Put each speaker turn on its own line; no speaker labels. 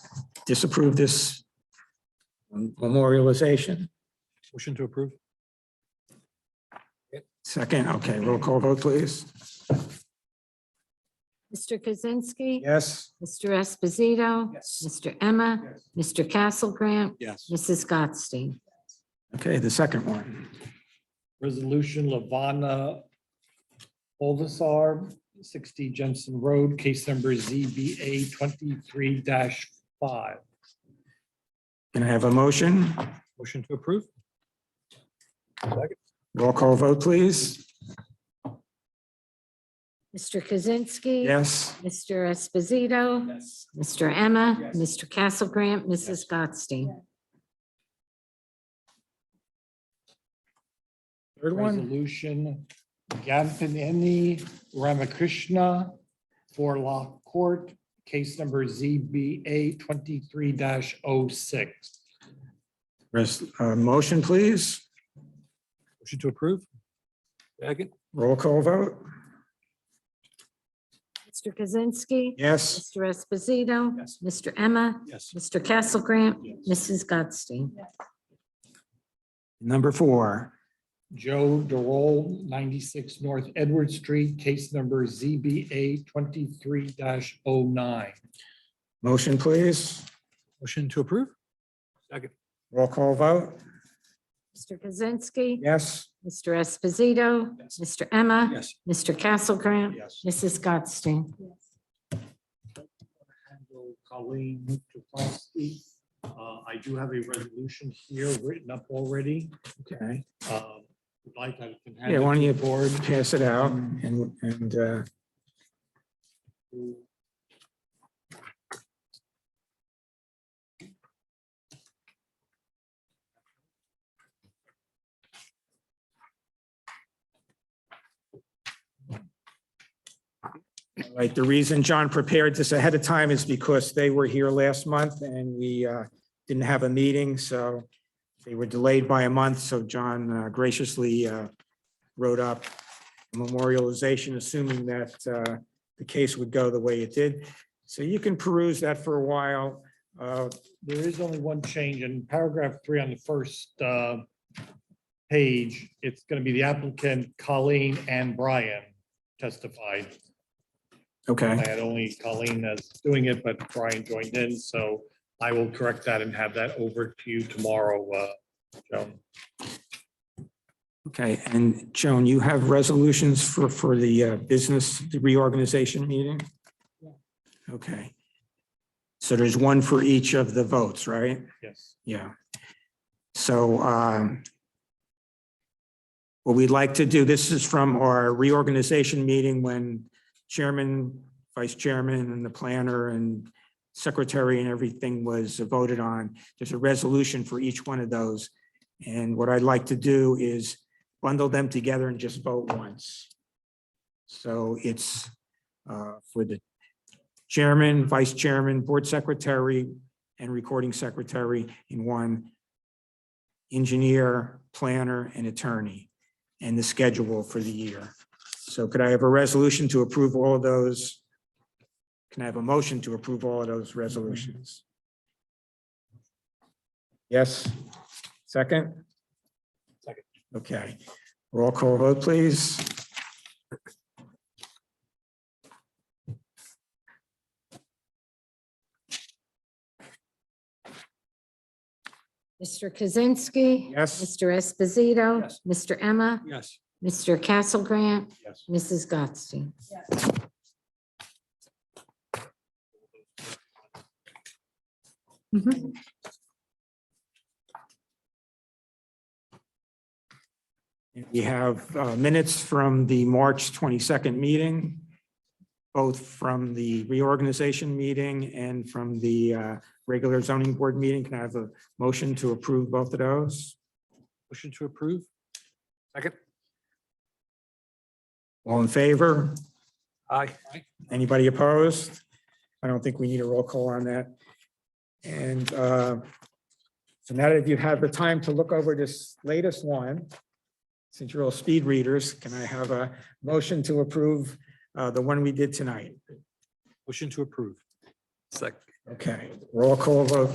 disapprove this memorialization.
Motion to approve?
Second, okay, roll call vote, please.
Mr. Kaczynski.
Yes.
Mr. Esposito.
Yes.
Mr. Emma. Mr. Castle Grant.
Yes.
Mrs. Gottstein.
Okay, the second one.
Resolution Lavana Olvisar, sixty Jensen Road, case number ZBA twenty-three five.
Can I have a motion?
Motion to approve?
Roll call vote, please.
Mr. Kaczynski.
Yes.
Mr. Esposito.
Yes.
Mr. Emma.
Yes.
Mr. Castle Grant. Mrs. Gottstein.
Third one.
Resolution Gampanini Ramakrishna, four lot court, case number ZBA twenty-three oh 6
Res- uh, Motion, please.
Motion to approve? Second.
Roll call vote.
Mr. Kaczynski.
Yes.
Mr. Esposito.
Yes.
Mr. Emma.
Yes.
Mr. Castle Grant.
Yes.
Mrs. Gottstein.
Number four.
Joe Darroll, 96 North Edward Street, case number ZBA 23-09.
Motion, please.
Motion to approve?
Roll call vote.
Mr. Kaczynski.
Yes.
Mr. Esposito.
Yes.
Mr. Emma.
Yes.
Mr. Castle Grant.
Yes.
Mrs. Gottstein.
Handle Colleen Tuplowski. Uh, I do have a resolution here written up already.
Okay.
Uh, Would like I can hand
Yeah, why
it
don't you
to the board.
pass it out and, and uh, Right, the reason John prepared this ahead of time is because they were here last month and we uh, didn't have a meeting, so they were delayed by a month, so John uh, graciously uh, wrote up memorialization, assuming that uh, the case would go the way it did. So you can peruse that for a while. Uh,
There is only one change in paragraph three on the first uh, page. It's going to be the applicant Colleen and Brian testified. I
Okay,
had only Colleen as doing it, but Brian joined in, so I will correct that and have that over to you tomorrow, uh, Joan.
okay. And Joan, you have resolutions for, for the uh, business reorganization meeting? Okay. So there's one for each of the votes, right?
Yes.
Yeah. So um, what we'd like to do, this is from our reorganization meeting when chairman, vice chairman, and the planner and secretary and everything was voted on. There's a resolution for each one of those. And what I'd like to do is bundle them together and just vote once. So it's uh, for the chairman, vice chairman, board secretary, and recording secretary in one, engineer, planner, and attorney, and the schedule for the year. So could I have a resolution to approve all of those? Can I have a motion to approve all of those resolutions? Yes, second?
Second.
Okay, roll call vote, please.
Mr. Kaczynski.
Yes.
Mr. Esposito.
Yes.
Mr. Emma.
Yes.
Mr. Castle Grant.
Yes.
Mrs. Gottstein. Mhm.
We have uh, minutes from the March 22nd meeting, both from the reorganization meeting and from the uh, regular zoning board meeting. Can I have a motion to approve both of those?
Motion to approve? Second.
All in favor?
Aye.
Anybody opposed? I don't think we need a roll call on that. And uh, so now that you've had the time to look over this latest one, since you're all speed readers, can I have a motion to approve uh, the one we did tonight?
Motion to approve. Second.
Okay, roll call vote,